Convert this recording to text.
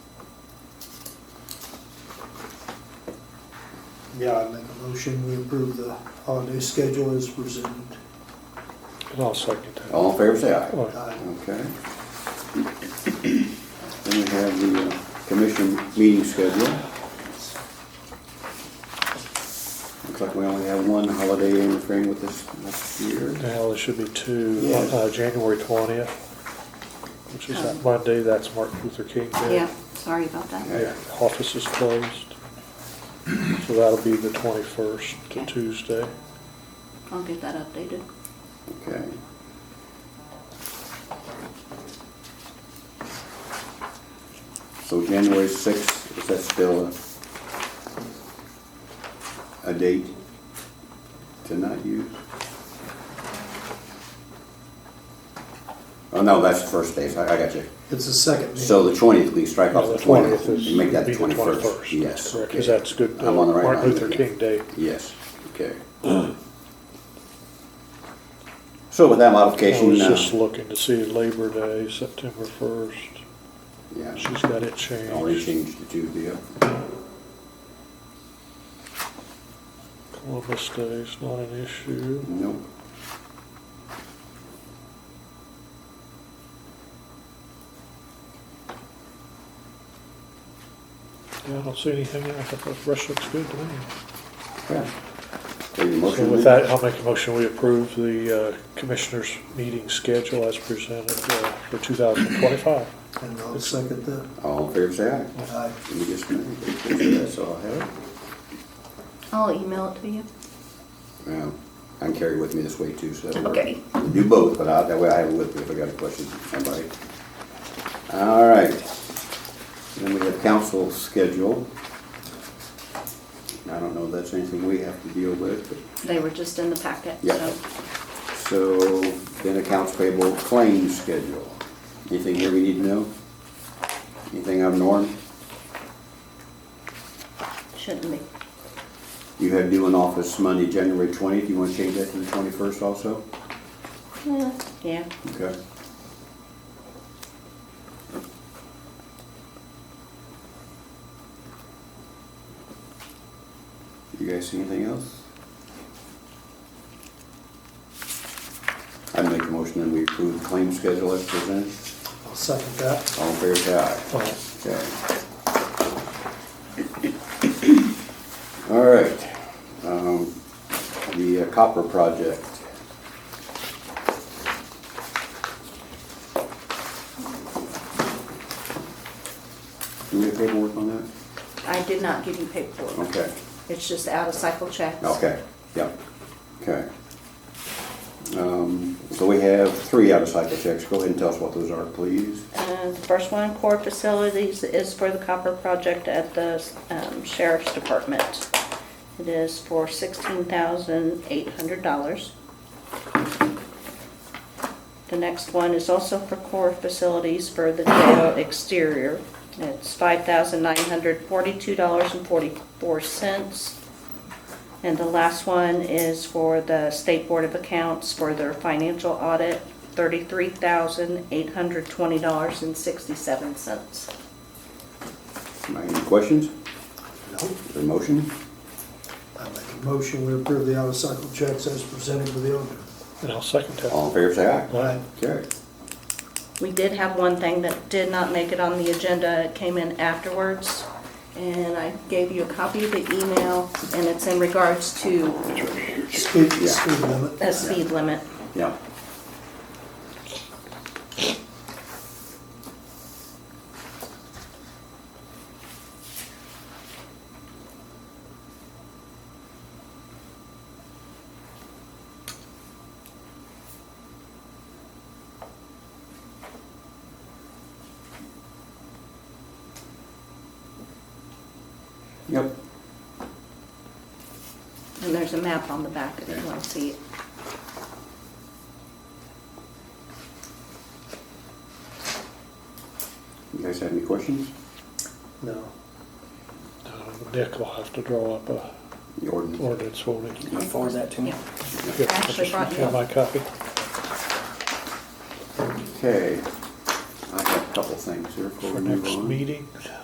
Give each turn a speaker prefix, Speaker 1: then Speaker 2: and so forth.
Speaker 1: Yeah, I'd make a motion, we approve the holiday schedule as presented.
Speaker 2: And I'll second that.
Speaker 3: All in favor, say aye.
Speaker 2: All right.
Speaker 1: Aye.
Speaker 3: Okay. Then we have the uh, commission meeting schedule. Looks like we only have one holiday interfering with this next year.
Speaker 2: Now, there should be two,
Speaker 3: Yes.
Speaker 2: uh, January twentieth, which is that Monday, that's Martin Luther King Day.
Speaker 4: Yeah, sorry about that.
Speaker 2: Yeah, office is closed. So that'll be the twenty-first to
Speaker 4: Okay.
Speaker 3: Oh,
Speaker 2: Tuesday.
Speaker 4: I'll get that updated.
Speaker 3: Okay. So January sixth, is that still a, a date to not use? Oh, no, that's the first day, so I, I got you.
Speaker 1: It's the second meeting.
Speaker 3: So the twentieth, we strike
Speaker 2: Yeah,
Speaker 3: off
Speaker 2: the
Speaker 3: the twentieth,
Speaker 2: twentieth
Speaker 3: and
Speaker 2: is,
Speaker 3: make
Speaker 2: would
Speaker 3: that the
Speaker 2: be the twenty-first.
Speaker 3: twenty-first, yes.
Speaker 2: Correct, because
Speaker 3: okay.
Speaker 2: that's good. uh,
Speaker 3: I'm on the right
Speaker 2: Martin
Speaker 3: line,
Speaker 2: Luther
Speaker 3: okay.
Speaker 2: King Day.
Speaker 3: Yes, okay. So with that
Speaker 2: I
Speaker 3: modification,
Speaker 2: was
Speaker 3: uh,
Speaker 2: just looking to see Labor Day, September first.
Speaker 3: yeah.
Speaker 2: She's got it
Speaker 3: Already
Speaker 2: changed.
Speaker 3: changed the two deal.
Speaker 2: Columbus Day's not an issue.
Speaker 3: Nope.
Speaker 2: Yeah, I don't see anything else. I thought the rest looks good to me.
Speaker 3: Yeah. Take your
Speaker 2: So
Speaker 3: motion.
Speaker 2: with that, I'll make a motion, we approve the uh, commissioners' meeting schedule as presented uh, for 2025.
Speaker 1: And I'll second that.
Speaker 3: All in favor, say aye.
Speaker 1: Aye.
Speaker 3: Let me just, that's all I have.
Speaker 4: I'll email it to you.
Speaker 3: Well, I can carry it with me this way too, so. that'll work.
Speaker 4: Okay.
Speaker 3: Do both, but I, that way I have it with me if I got a question from somebody. All right. Then we have council schedule. I don't know if that's anything we have to deal with, but.
Speaker 4: They were just in the packet,
Speaker 3: Yeah.
Speaker 4: so.
Speaker 3: So then accounts payable claim schedule. Anything here we need to know? Anything out of norm?
Speaker 4: Shouldn't be.
Speaker 3: You have due in office Monday, January twentieth. You want to change that to the twenty-first also?
Speaker 4: Yeah, Yeah,
Speaker 3: Okay. You guys see anything else? I'd make a motion that we approve the claim schedule as presented.
Speaker 1: I'll second that.
Speaker 3: All in favor, say aye.
Speaker 1: Oh.
Speaker 2: Aye.
Speaker 3: Okay. All right, um, the uh, copper project. Do we have paperwork on that?
Speaker 4: I did not give you paperwork.
Speaker 3: Okay,
Speaker 4: It's just out of cycle checks.
Speaker 3: okay, yep, okay. Um, so we have three out-of-cycle checks, go ahead and tell us what those are, please.
Speaker 4: Uh, The first one, core facilities, is for the copper project at the um, sheriff's department. It is for sixteen thousand eight hundred dollars. The next one is also for core facilities for the jail exterior. It's five thousand nine hundred forty-two dollars and forty-four cents. And the last one is for the State Board of Accounts for their financial audit, thirty-three thousand, eight hundred twenty dollars and sixty-seven cents.
Speaker 3: Any questions,
Speaker 1: Nope.
Speaker 3: Is there a motion?
Speaker 1: I make a motion, we approve the out-of-cycle checks as presented with the auditor.
Speaker 2: And I'll second that.
Speaker 3: All in favor, say aye.
Speaker 2: Aye.
Speaker 3: Carry.
Speaker 4: We did have one thing that did not make it on the agenda, it came in afterwards, and I gave you a copy of the email, and it's in regards to
Speaker 1: Speed,
Speaker 3: Yeah.
Speaker 1: speed limit.
Speaker 4: a speed limit.
Speaker 3: Yeah. Yep.
Speaker 4: And there's a map on the back if you want to see it.
Speaker 3: You guys have any questions?
Speaker 1: No.
Speaker 2: Uh, Nick will have to draw up a
Speaker 3: The ordinance?
Speaker 2: ordinance, won't he?
Speaker 5: Can you forward that to me?
Speaker 4: Yeah.
Speaker 2: Yeah,
Speaker 4: I actually
Speaker 2: just
Speaker 4: brought you
Speaker 2: have
Speaker 4: one.
Speaker 2: my copy.
Speaker 3: Okay, I have a couple things here before
Speaker 2: For
Speaker 3: we move
Speaker 2: next
Speaker 3: on.
Speaker 2: meeting,